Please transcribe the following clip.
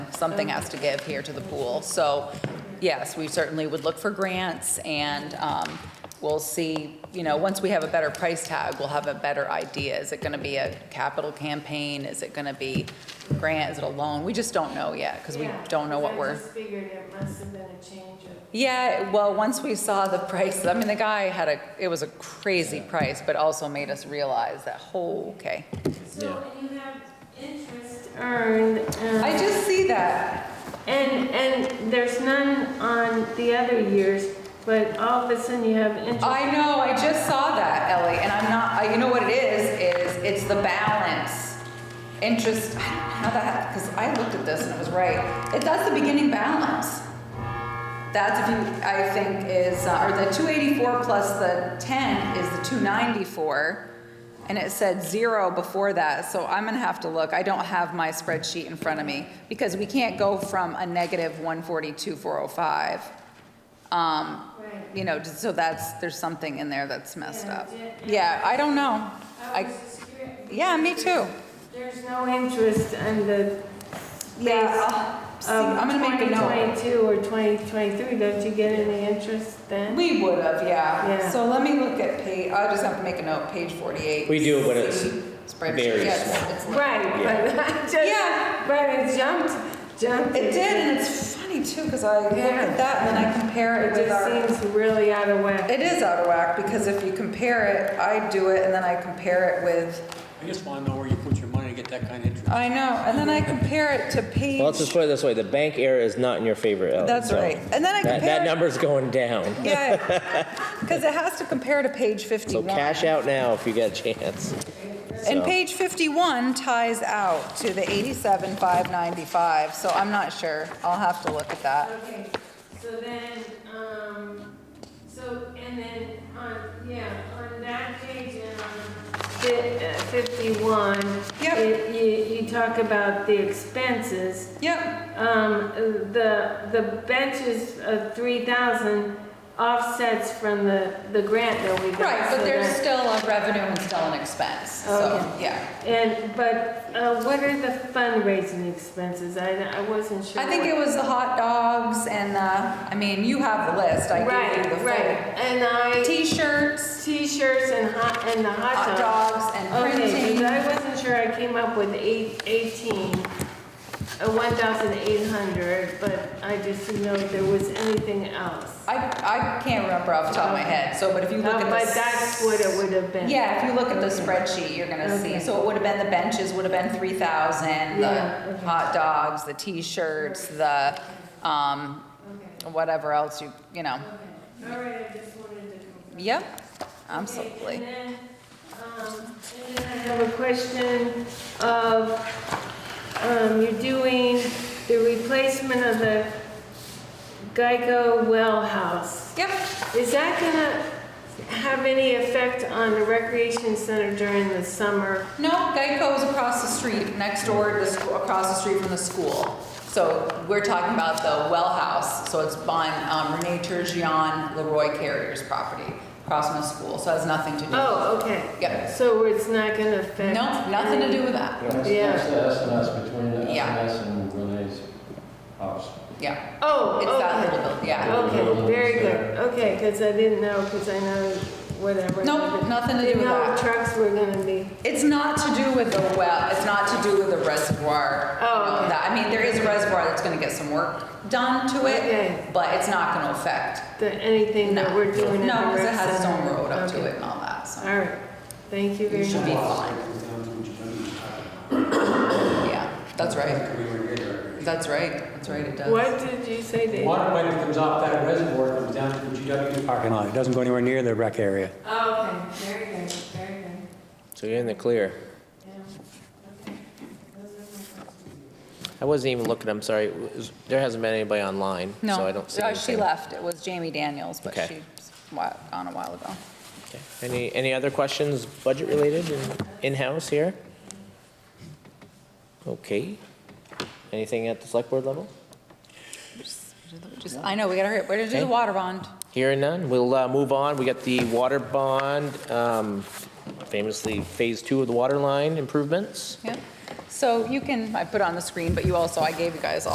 something has to give here to the pool. So, yes, we certainly would look for grants, and um, we'll see, you know, once we have a better price tag, we'll have a better idea. Is it going to be a capital campaign? Is it going to be grant? Is it a loan? We just don't know yet, because we Yeah, don't know 'cause what we're. I just figured it must have been a change of Yeah, well, once we saw the price, I mean, the guy had a, it was a crazy price, but also made us realize that, oh, okay. So you have interest earned, I um, just see that. and, and there's none on the other years, but all of a sudden you have interest. I know, I just saw that, Ellie, and I'm not, I- you know what it is, is it's the balance. Interest, I don't know that, because I looked at this and it was right. It, that's the beginning balance. That's if you, I think is, uh, or the 284 plus the 10 is the 294. And it said zero before that, so I'm gonna have to look. I don't have my spreadsheet in front of me because we can't go from a negative 142, 405. Um, Right. you know, just so that's, there's something in there that's messed Yeah, up. yeah. Yeah, I don't know. I I, was just curious. yeah, me too. There's no interest on the Yeah, base I'll- see, of I'm gonna make a note. 2022 or 2023. Don't you get any interest then? We would have, yeah. Yeah. So let me look at page, I'll just have to make a note, page 48. We do, but it's C, spreadsheet. very Yes, small. it's little. Right, but I just, Yeah. but it jumped, jumped. It did, and it's funny too, because I look Yeah. at that and then I compare it It with our. just seems really out of whack. It is out of whack, because if you compare it, I do it, and then I compare it with, I just want to know where you put your money to get that kind of interest. I know, and then I compare it to page. Well, let's just put it this way, the bank error is not in your favor, Ellie. That's so right. And then I That, that compare, number's going down. yeah, because it has to compare to page 51. So cash out now if you get a chance. And So- page 51 ties out to the 87,595, so I'm not sure. I'll have to look at that. Okay, so then, um, so, and then on, yeah, on that page, um, fi- uh, fifty-one. Yep. it- You, you talk about the expenses, Yep, um, the, the benches of three thousand offsets from the, the grant that we got. right, but so there's that- still a revenue and still an expense, so, Okay. yeah. And, but, uh, what are the fundraising expenses? I, I wasn't sure. I think it what- was the hot dogs and, uh, I mean, you have the list, I gave Right, you the full. right, and I. T-shirts, T-shirts and hot, and the hot hot dog. dogs, and Okay, printing. because I wasn't sure, I came up with eight, eighteen, uh, one thousand eight hundred, but I just didn't know if there was anything else. I, I can't remember off the top of my head, so, but if you No, look at Um, But this. that's what it would have been. Yeah, if you look at the spreadsheet, you're gonna see, Okay. so it would have been, the benches would have been three thousand, Yeah, the okay. hot dogs, the t-shirts, the, um, Okay, whatever else you, you know, okay, all right, I just wanted to. confirm. yep, Okay, absolutely. And then, um, and then I have a question of, um, you're doing the replacement of the Geico well house. Yep, Is that gonna have any effect on the recreation center during the summer? no, Geico's across the street, next door, to the school, across the street from the school. So we're talking about the well house, so it's on um, Renee Turgeon, Leroy Carrier's property, across from the school, so it has nothing to do. Oh, okay. Yep. So it's not gonna affect? No, nothing to do with that. That's, Yeah. that's the SMS between the Yeah. SMS and Renee's house. Yeah, Oh, it's that okay. little building, yeah. Okay, very good. Okay, because I didn't know, because I know whatever. Nope, nothing to do with No that. trucks were gonna be, It's not to do with the well, it's not to do with the reservoir. you Oh, know, okay. that- I mean, there is a reservoir that's gonna get some work done to Okay. it, but it's not gonna affect. the- anything that no. we're doing in the rec No, center. because it has its own road up to Okay. it and all that, so, All right, thank you You very should much. be Lots of fine. people down to what you're doing. yeah, that's right. We were here. That's right, that's right, it does. What did you say, Dave? Water pipe that comes off that reservoir comes down to the GW parking lot. It doesn't go anywhere near the rec area. Oh, okay, very good, very good. So you're in the clear. Yeah, okay. Those are my questions. I wasn't even looking, I'm sorry. Is- There hasn't been anybody online, so No, I don't see uh, anything. she left, it was Jamie Daniels, but Okay. she's wa- gone a while ago. Okay. Any, any other questions, budget related and in-house here? Okay. Anything at the select board level? Just, I know, we gotta hurry, up. we're gonna do the Okay. water bond. Here and none, we'll uh, move on. We got the water bond, um, famously Phase Two of the water line improvements. Yeah. So you can, I put it on the screen, but you also, I gave you guys all.